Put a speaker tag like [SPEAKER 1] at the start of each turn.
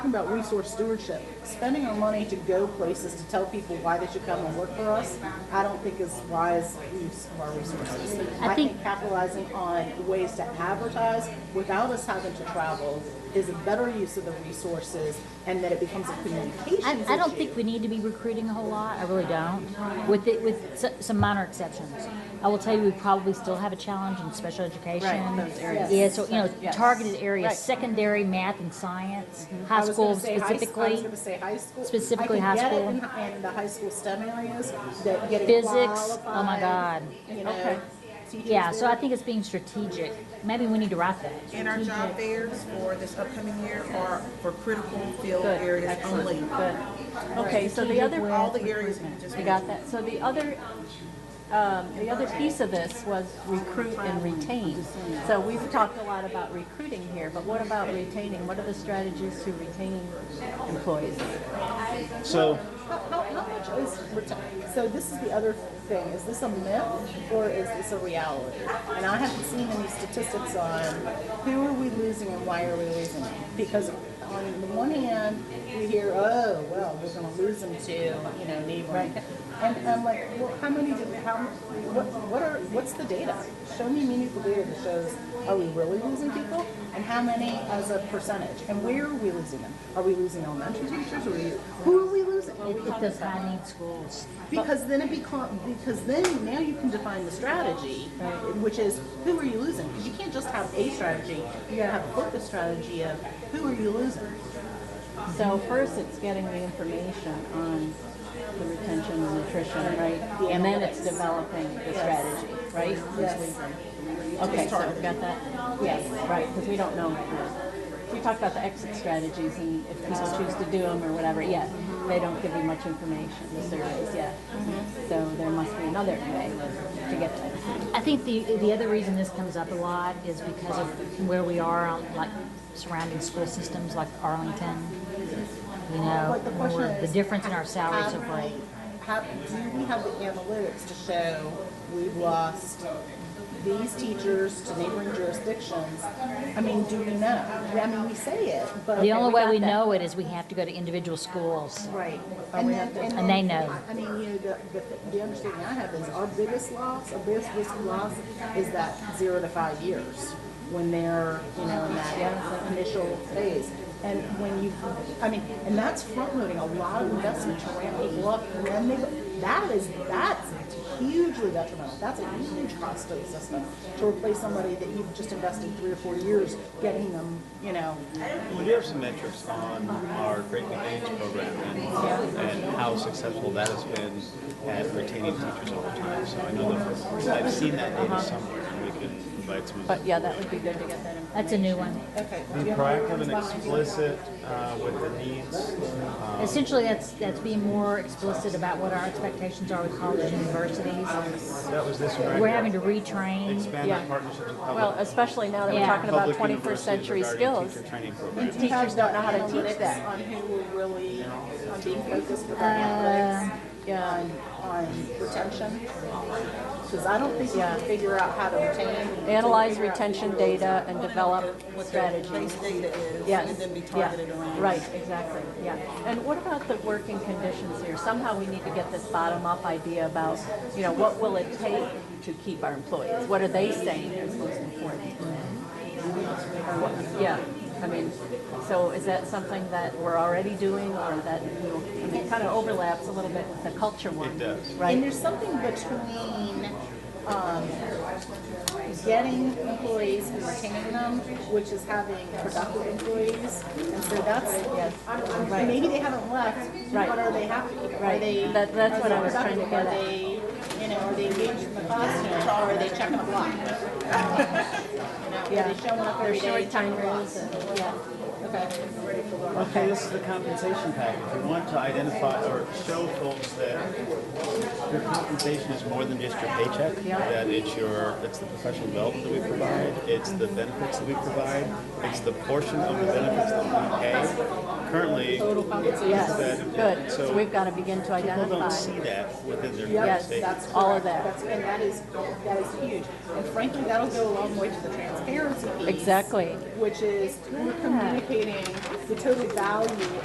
[SPEAKER 1] Talking about resource stewardship, spending our money to go places to tell people why they should come and work for us, I don't think is wise use of our resources. I
[SPEAKER 2] think-
[SPEAKER 1] think capitalizing on ways to advertise without us having to travel is a better use of the resources and that it becomes a communications
[SPEAKER 2] I, I don't think
[SPEAKER 1] issue.
[SPEAKER 2] we need to be recruiting a whole lot. I really don't. With it, with s- some minor exceptions, I will tell you we probably still have a challenge in special education.
[SPEAKER 3] Right, those areas.
[SPEAKER 2] Yeah, so you know,
[SPEAKER 3] Yes.
[SPEAKER 2] targeted areas,
[SPEAKER 1] Right. Mm-hmm.
[SPEAKER 2] secondary math and science, high
[SPEAKER 1] I was
[SPEAKER 2] school
[SPEAKER 1] gonna say high s- I was
[SPEAKER 2] specifically.
[SPEAKER 1] gonna say high school.
[SPEAKER 2] specifically high
[SPEAKER 1] I
[SPEAKER 2] school.
[SPEAKER 1] can get it in, in the high school STEM areas that get it
[SPEAKER 2] Physics, oh my
[SPEAKER 1] qualified,
[SPEAKER 2] God.
[SPEAKER 1] You know,
[SPEAKER 3] Okay.
[SPEAKER 1] teachers
[SPEAKER 2] Yeah, so I
[SPEAKER 1] there.
[SPEAKER 2] think it's being strategic. Maybe we need to write that.
[SPEAKER 4] And our job fairs for this upcoming year are for critical field
[SPEAKER 3] Good,
[SPEAKER 4] areas only.
[SPEAKER 3] excellent, good. Okay, so the other,
[SPEAKER 4] All the areas we just
[SPEAKER 3] you got that? So the other, um, the other piece of this was recruit and retain. So we've talked a lot about recruiting here, but what about retaining? What are the strategies to retain employees?
[SPEAKER 5] So,
[SPEAKER 1] How, how, how much is reti- so? This is the other thing. Is this a myth or is this a reality? And I haven't seen any statistics on who are we losing and why are we losing them? Because on the one hand, we hear, oh, well, we're going to lose them to you know neighboring, and I'm like, well, how many? Did, how? What? What are? What's the data? Show me meaningful data that shows are we really losing people and how many as a percentage and where are we losing them? Are we losing elementary teachers? Are we, who are we losing? Are
[SPEAKER 2] It,
[SPEAKER 1] we
[SPEAKER 2] it
[SPEAKER 1] talking
[SPEAKER 2] does
[SPEAKER 1] about-
[SPEAKER 2] high need schools.
[SPEAKER 1] because then it become because then now you can define the strategy, which is who are you losing? Because you can't just have a strategy. You gotta have a focused strategy of who are you losing.
[SPEAKER 3] So first, it's getting the information on the retention and nutrition, right? And then it's developing the strategy, right?
[SPEAKER 1] Yes.
[SPEAKER 3] Okay, so we got that? Yes, right, because we don't know. We talked about the exit strategies and if people choose to do them or whatever, yeah, they don't give you much information, the surveys, yeah. So there must be another way to get that.
[SPEAKER 2] I think the the other reason this comes up a lot is because of where we are on like surrounding school systems like Arlington. You know,
[SPEAKER 1] But the
[SPEAKER 2] where
[SPEAKER 1] question
[SPEAKER 2] we're-
[SPEAKER 1] is,
[SPEAKER 2] the difference in our salaries
[SPEAKER 1] have
[SPEAKER 2] are great.
[SPEAKER 1] we- Have, do we have the analytics to show we've lost these teachers to neighboring jurisdictions? I mean, do we know? I mean, we say it, but
[SPEAKER 2] The only way
[SPEAKER 3] got
[SPEAKER 2] we
[SPEAKER 3] that.
[SPEAKER 2] know it is we have to go to individual schools.
[SPEAKER 1] Right. And then, and
[SPEAKER 2] And they
[SPEAKER 1] then,
[SPEAKER 2] know.
[SPEAKER 1] I mean, you know, the, the, the understanding I have is our biggest loss, our biggest risk of loss is that zero to five years when they're, you know, in that initial phase. And when you, I mean, and that's front loading a lot of investment to ramp it up and then they, go- that is, that's hugely detrimental. That's a huge cost to the system to replace somebody that you've just invested three or four years getting them, you know,
[SPEAKER 5] we do have some metrics on our Great Convenience program and, and how successful that has been at retaining teachers over time. So I know that I've seen that data somewhere, and we can invite some. of
[SPEAKER 3] Uh-huh. But yeah, that would be good to get that information.
[SPEAKER 2] That's a new one.
[SPEAKER 1] okay.
[SPEAKER 5] Be proactive and explicit uh, with the needs. Um,
[SPEAKER 2] Essentially, that's that's being more explicit about what our expectations are with colleges and universities.
[SPEAKER 5] that was this one right
[SPEAKER 2] We're
[SPEAKER 5] here.
[SPEAKER 2] having to retrain.
[SPEAKER 5] expand
[SPEAKER 3] Yeah.
[SPEAKER 5] our partnerships with public.
[SPEAKER 3] Well, especially now that we're
[SPEAKER 2] Yeah.
[SPEAKER 3] talking about
[SPEAKER 5] public
[SPEAKER 3] twenty-first
[SPEAKER 5] universities
[SPEAKER 3] century
[SPEAKER 5] regarding
[SPEAKER 3] skills.
[SPEAKER 5] Teacher training programs.
[SPEAKER 3] Teachers don't know how to teach that. Uh,
[SPEAKER 1] on who will really, on being focused with our analytics,
[SPEAKER 3] Yeah,
[SPEAKER 1] on, on retention? Because I don't think you can figure out how to retain.
[SPEAKER 3] analyze retention data and develop
[SPEAKER 4] What their
[SPEAKER 3] strategies.
[SPEAKER 4] base data is,
[SPEAKER 3] Yes.
[SPEAKER 4] and then be
[SPEAKER 3] yeah,
[SPEAKER 4] targeted around.
[SPEAKER 3] Right, exactly, yeah. And what about the working conditions here? Somehow we need to get this bottom-up idea about, you know, what will it take to keep our employees? What are they saying is most important? Or what- Yeah, I mean, so is that something that we're already doing or that, we'll- I mean, it kind of overlaps a little bit with the culture one?
[SPEAKER 5] It does.
[SPEAKER 1] And
[SPEAKER 3] Right,
[SPEAKER 1] there's something between, um, getting employees and retaining them, which is having productive employees. And so that's, yes, maybe they haven't left,
[SPEAKER 3] Right.
[SPEAKER 1] but are they happy? Are
[SPEAKER 3] Right.
[SPEAKER 1] they?
[SPEAKER 3] That- that's
[SPEAKER 1] are
[SPEAKER 3] what
[SPEAKER 1] they
[SPEAKER 3] I was trying to
[SPEAKER 1] productive?
[SPEAKER 3] get at.
[SPEAKER 1] Are they, you know, are they engaged in the classroom, or are they checking the block? You know,
[SPEAKER 3] Yeah.
[SPEAKER 1] are they showing up
[SPEAKER 3] they're
[SPEAKER 1] every day?
[SPEAKER 3] short
[SPEAKER 1] checking the
[SPEAKER 3] timers,
[SPEAKER 1] blocks?
[SPEAKER 3] and- yeah.
[SPEAKER 1] Okay.
[SPEAKER 5] Okay, this is the compensation package. We want to identify or show folks that your compensation is more than just your paycheck. That it's your, it's the professional development that we provide, it's the benefits that we provide, it's the portion of the benefits that we pay. Currently,
[SPEAKER 3] Yes,
[SPEAKER 5] that-
[SPEAKER 3] good, so
[SPEAKER 5] so-
[SPEAKER 3] we've got to begin to
[SPEAKER 5] people
[SPEAKER 3] identify.
[SPEAKER 5] don't see that within their
[SPEAKER 3] Yes,
[SPEAKER 5] compensation.
[SPEAKER 3] that's all of that.
[SPEAKER 1] That's, and that is, that is huge. And frankly, that'll go a long way to the transparency piece.
[SPEAKER 3] Exactly.
[SPEAKER 1] Which is we're communicating the total value